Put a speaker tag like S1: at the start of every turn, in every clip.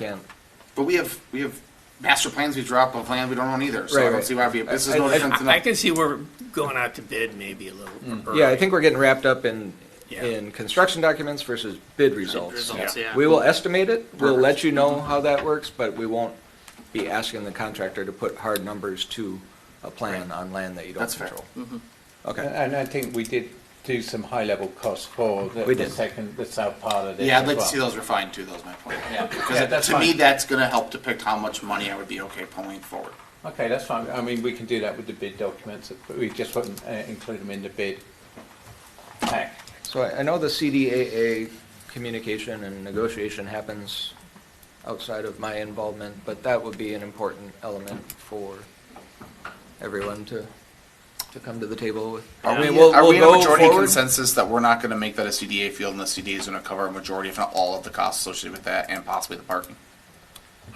S1: Again,
S2: But we have, we have master plans we drop of land we don't own either, so
S1: Right,
S2: I don't
S1: right.
S2: see why we, this is
S1: I-
S2: no
S1: I-
S2: different than.
S3: I I can see we're going out to bid maybe a
S2: Mm.
S3: little early.
S1: yeah, I think we're getting wrapped up in,
S3: Yeah.
S1: in construction documents versus bid results.
S4: results, Yeah. yeah.
S1: We will estimate it, we'll let you know how that works, but we won't be asking the contractor to put hard numbers to a plan on land that you don't
S2: That's fair.
S1: control.
S5: And
S1: Okay,
S5: and I think we did do some high-level costs for the
S1: We
S5: the
S1: did.
S5: second, the south part of this
S2: Yeah, I'd
S5: as
S2: like to
S5: well.
S2: see those refined too, Those my point.
S5: Yeah. Yeah,
S2: Because
S5: that's
S2: to me,
S5: fine.
S2: that's gonna help depict how much money I would be okay pulling forward.
S5: Okay, that's fine. I mean, we can do that with the bid documents, but we just wouldn't uh, include them in the bid pack.
S1: so I I know the CDAA communication and negotiation happens outside of my involvement, but that would be an important element for everyone to, to come to the table with. I
S2: Are we,
S1: mean, we'll-
S2: are
S1: we'll
S2: we in a
S1: go
S2: majority
S1: forward.
S2: consensus that we're not gonna make that a CDA field and the CDA is gonna cover a majority, if not all of the costs associated with that and possibly the parking?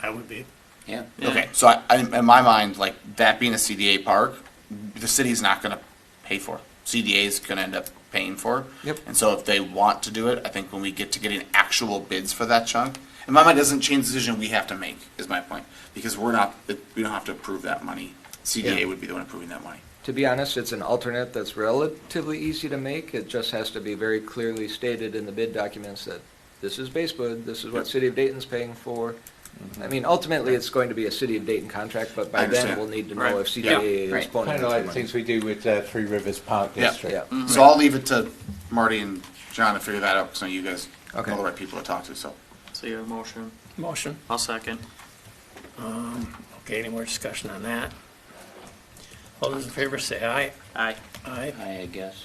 S3: I would be.
S2: Yeah. Okay, so I, I, in my mind, like, that being a CDA park, the city's not gonna pay for. it. CDA is gonna end up paying for. it.
S1: Yep.
S2: And so if they want to do it, I think when we get to getting actual bids for that chunk, in my mind, it doesn't change the decision we have to make, is my point. Because we're not, we don't have to approve that money.
S1: Yeah.
S2: CDA would be the one approving that money.
S1: To be honest, it's an alternate that's relatively easy to make. It just has to be very clearly stated in the bid documents that this is Basewood, this is what City of Dayton's paying for.
S5: Mm-hmm.
S1: I mean, ultimately, it's going to be a City of Dayton contract, but
S2: I
S1: by then,
S2: understand.
S1: we'll need to
S4: Right.
S1: know if
S2: Yeah.
S1: CDA is
S4: Right.
S1: pulling
S5: Kind
S1: in
S5: of like the
S1: money.
S5: things Mm. we do with uh, Three Rivers Park
S2: Yeah.
S5: District.
S1: Yeah.
S2: So I'll leave it to Marty and John to figure that out, because I know you guys know
S1: Okay.
S2: the right people to talk to, so.
S4: So you have a motion.
S3: Motion.
S4: I'll second.
S3: Um, Okay, any more discussion on that? All those in favor say aye.
S4: Aye.
S3: Aye.
S6: I guess.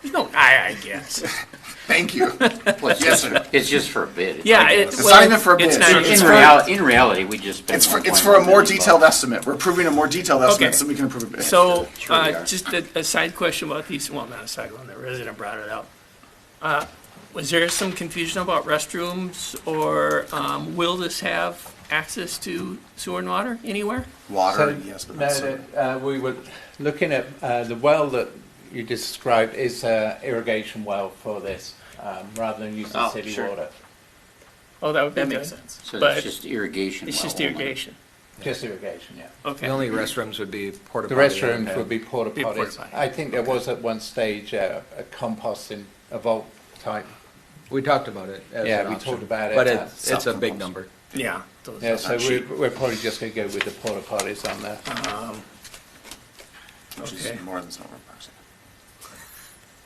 S3: There's no aye, I guess.
S2: Thank you. Yes, sir.
S6: It's just for a bid.
S3: Yeah. it-
S2: It's
S3: well,
S2: not even for a
S3: it's
S2: bid.
S3: not
S2: It's
S3: even-
S6: In
S2: for-
S6: reality, in reality, we just. spent
S2: It's for, it's
S6: 1.1
S2: for a more
S6: million bucks.
S2: detailed estimate. We're approving a more detailed estimate, so we can approve it.
S3: So,
S2: Sure we
S3: uh,
S2: are.
S3: just a, a side question about these, well, not a side one, the resident brought it up. Uh, Was there some confusion about restrooms or, um, will this have access to sewer and water anywhere?
S2: Water,
S5: So,
S2: yes, but
S5: no,
S2: not sewer.
S5: the- uh, we were looking at uh, the well that you described is an irrigation well for this, um, rather than using
S4: Oh,
S5: city
S4: sure.
S5: water.
S3: Oh, that would be
S4: That
S3: good.
S4: makes sense.
S6: So
S3: but-
S6: it's just irrigation.
S3: It's
S6: well
S3: just
S6: only.
S3: irrigation,
S5: Just irrigation, yeah.
S1: The
S3: okay.
S1: only restrooms would be porta
S5: The
S1: potty
S5: restrooms
S1: and-
S5: would be porta
S3: Be porta
S5: potties.
S3: potty.
S5: I think there was at one stage uh, a composting, a vault type.
S1: We talked about it as
S5: Yeah,
S1: an
S5: we
S1: option,
S5: talked about it
S1: But
S5: at
S1: it's, it's a
S2: South
S1: big
S2: Campus.
S1: number.
S3: Yeah. those-
S5: Yeah, so
S2: not
S5: we're,
S2: cheap.
S5: we're probably just gonna go with the porta potties on there.
S3: Oh.
S2: Which is
S3: Okay.
S2: more than Snowbird Parks.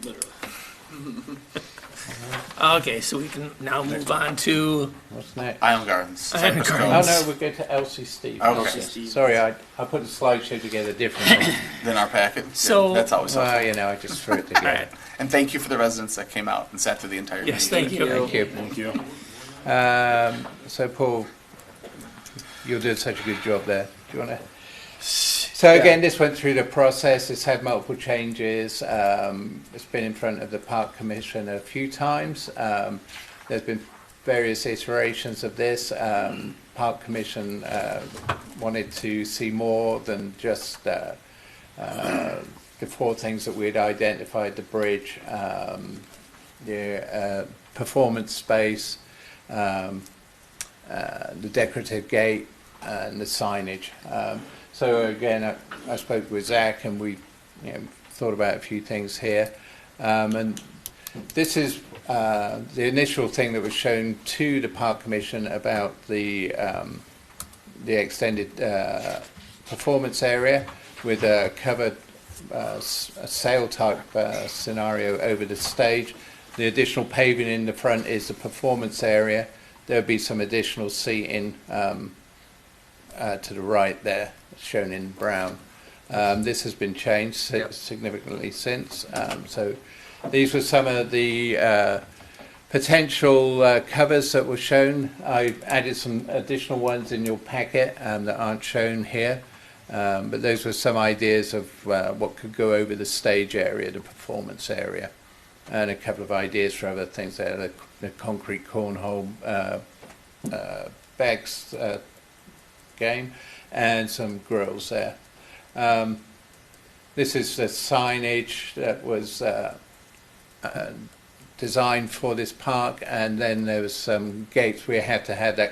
S3: Okay, so we can now move on to,
S5: What's next?
S2: Island Gardens.
S3: Island
S2: Cypress
S5: Oh,
S3: Gardens.
S5: no, we'll go to Elsie Steve.
S2: Gardens.
S4: Elsie
S2: Okay,
S4: Steve.
S5: Sorry, I, I put the slideshow together differently.
S2: then our packet. Yeah,
S3: So-
S2: That's always
S5: Well,
S2: helpful.
S5: you know, I just threw it
S3: all right,
S5: together.
S2: And thank you for the residents that came out and sat through the entire meeting.
S3: yes, thank you.
S5: Thank you.
S2: Thank you.
S5: Um, so Paul, you're doing such a good job there. Do you want to? So again, this went through the process. It's had multiple changes. Um, it's been in front of the park commission a few times. Um, there's been various iterations of this. Um, park commission uh, wanted to see more than just uh, uh, the four things that we'd identified: the bridge, um, the uh, performance space, um, uh, the decorative gate and the signage. Um, so again, I, I spoke with Zach and we you know, thought about a few things here. Um, and this is uh, the initial thing that was shown to the Park Commission about the um, the extended uh, performance area with a covered uh, s- a sail type uh, scenario over the stage. The additional paving in the front is the performance area. There'll be some additional seating um, uh, to the right there, shown in brown. Um, this has been changed si-
S1: Yep.
S5: significantly since. Um, so these were some of the uh, potential uh, covers that were shown. I've added some additional ones in your packet um, that aren't shown here. Um, but those were some ideas of uh, what could go over the stage area, the performance area, and a couple of ideas for other things there, the, the concrete cornhole uh, uh, bags uh, game, and some grills there. Um, this is the signage that was uh, uh, designed for this park, and then there was some gates we had to have that